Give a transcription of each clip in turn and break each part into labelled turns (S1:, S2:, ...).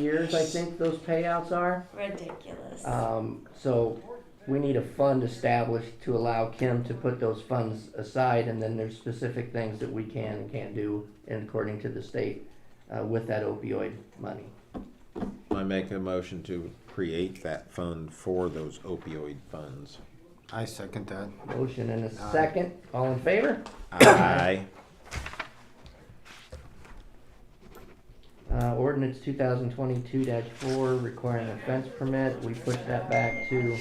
S1: years, I think those payouts are.
S2: Ridiculous.
S1: Um, so we need a fund established to allow Kim to put those funds aside, and then there's specific things that we can and can't do, and according to the state, uh, with that opioid money.
S3: I make a motion to create that fund for those opioid funds.
S4: I second that.
S1: Motion and a second, all in favor?
S3: Aye.
S1: Uh, ordinance two thousand twenty-two four requiring a fence permit, we push that back to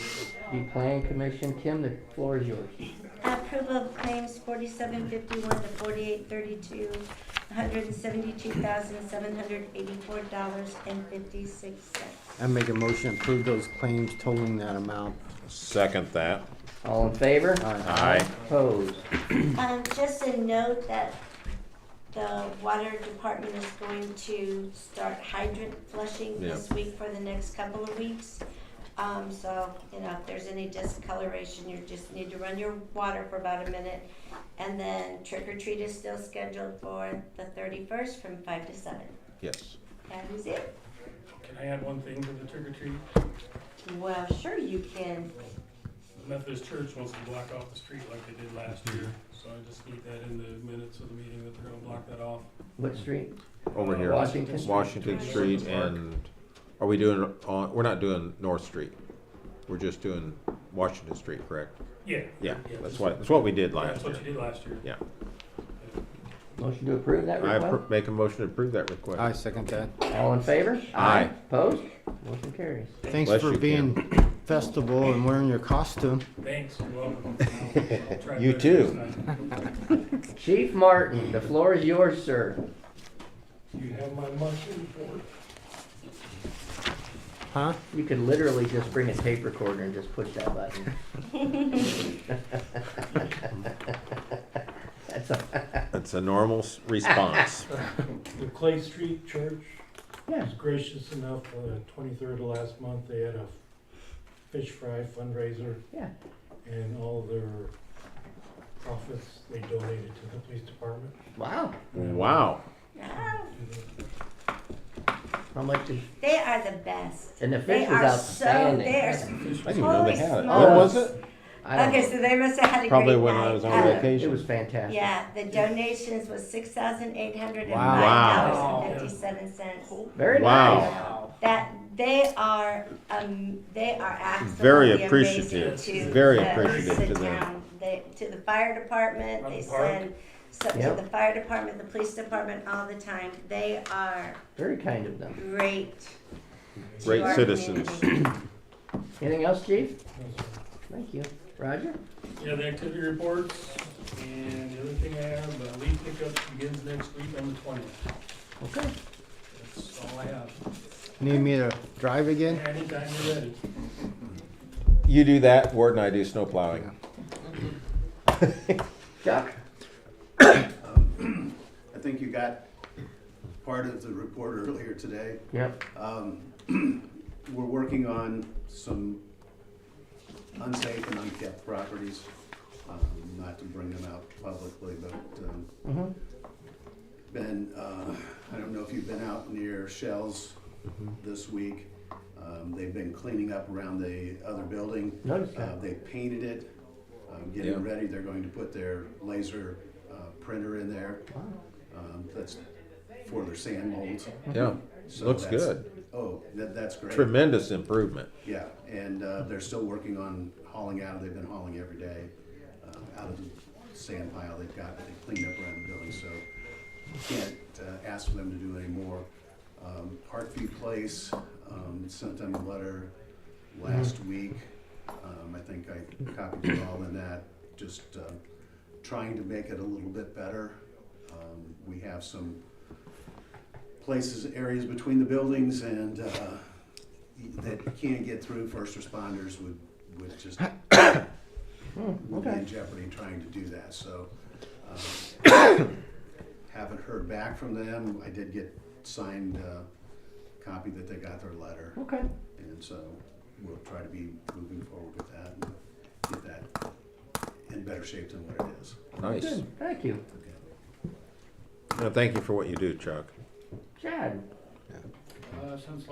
S1: the plan commission. Kim, the floor is yours.
S2: Approval of claims forty-seven fifty-one to forty-eight thirty-two, one hundred and seventy-two thousand, seven hundred eighty-four dollars and fifty-six cents.
S4: I make a motion to approve those claims totaling that amount.
S3: Second that.
S1: All in favor?
S4: Aye.
S3: Aye.
S1: Opposed?
S2: Um, just a note that the water department is going to start hydrant flushing
S3: Yeah.
S2: this week for the next couple of weeks. Um, so, you know, if there's any discoloration, you just need to run your water for about a minute. And then trick or treat is still scheduled for the thirty-first from five to seven.
S3: Yes.
S2: That is it.
S5: Can I add one thing to the trick or treat?
S2: Well, sure you can.
S5: The Methodist Church wants to block off the street like they did last year, so I just need that in the minutes of the meeting that they're gonna block that off.
S1: What street?
S3: Over here.
S1: Washington.
S3: Washington Street and, are we doing, on? we're not doing North Street. We're just doing Washington Street, correct?
S5: Yeah.
S3: Yeah, that's what, that's what we did last
S5: That's what you
S3: year.
S5: did last year.
S3: Yeah.
S1: Motion to approve that
S3: I
S1: request?
S3: appro- make a motion to approve that request.
S4: I second that.
S1: All in favor?
S3: Aye.
S1: Opposed? Motion carries.
S4: Thanks
S3: Bless
S4: for
S3: you,
S4: being
S3: Kim.
S4: festival and wearing your costume.
S5: Thanks, you're welcome. I'll- I'll try
S3: You
S5: better
S3: too.
S5: next time.
S1: Chief Martin, the floor is yours, sir.
S5: You have my mushroom report.
S4: Huh?
S1: You could literally just bring a tape recorder and just push that button. That's a,
S3: That's a normal s- response.
S6: The Clay Street Church
S1: yeah,
S6: was gracious enough, uh, twenty-third of last month, they had a fish fry fundraiser
S1: yeah.
S6: and all their profits they donated to the police department.
S1: Wow.
S3: Wow.
S2: Ah,
S1: How much is,
S2: They are the best.
S1: and the
S2: They
S1: fish was
S2: are so,
S1: outstanding.
S2: they are. s-
S3: I didn't even know
S2: Holy
S3: they had it.
S1: smokes.
S3: When was it?
S1: I don't
S2: Okay,
S1: know.
S2: so they must have had a great night.
S3: Probably when I was on
S2: Uh,
S1: Yeah, It
S3: vacation.
S1: was fantastic.
S2: Yeah, the donations was six thousand eight hundred and five
S3: Wow.
S2: dollars and fifty-seven cents.
S1: Very nice.
S3: Wow.
S2: That, they are, um, they are
S3: Very
S2: absolutely amazing
S3: appreciative.
S2: to.
S3: Very
S2: the-
S3: appreciative to them.
S2: town. They, to the fire department,
S5: From
S2: they
S5: the park.
S2: send, so,
S1: Yep.
S2: to the fire department, the police department all the time. They are
S1: Very kind of them.
S2: great. to
S3: Great
S2: our
S3: citizens.
S2: community.
S1: Anything else, chief?
S6: Those are
S1: Thank you. Roger?
S5: Yeah, the activity reports, and the other thing I have, uh, leaf pickup begins next week on the twentieth.
S1: Okay.
S5: That's all I have.
S4: Need me to drive again?
S5: Anytime you're ready.
S3: You do that, Ward and I do snow plowing.
S1: Chuck?
S7: I think you got part of the report earlier today.
S1: Yep.
S7: We're working on some unsafe and unkept properties, um, not to bring them out publicly, but, um, been, uh, I don't know if you've been out near Shells this week. Um, They've been cleaning up around the other building.
S1: Noticed that.
S7: Uh, They painted it, um, getting
S3: Yeah.
S7: ready. They're going to put their laser uh, printer in there. Um, That's for their sand molds.
S3: Yeah,
S7: So
S3: looks
S7: that's-
S3: good.
S7: Oh, that, that's great.
S3: Tremendous improvement.
S7: Yeah, and uh, they're still working on hauling out, they've been hauling every day uh, out of the sand pile they've got, that they cleaned up around the building, so can't uh, ask for them to do any more. Um, Heartview Place um, sent them a letter last week. Um, I think I copied you all in that, just uh, trying to make it a little bit better. Um, We have some places, areas between the buildings and uh, that you can't get through, first responders would, would just would be
S1: okay.
S7: in jeopardy trying to do that, so. um, Haven't heard back from them. I did get signed uh, copy that they got their letter,
S1: Okay.
S7: and so we'll try to be moving forward with that and get that in better shape than what it is.
S3: Nice.
S1: Good. Thank you.
S3: Well, thank you for what you do, Chuck.
S1: Chad?
S5: Uh, since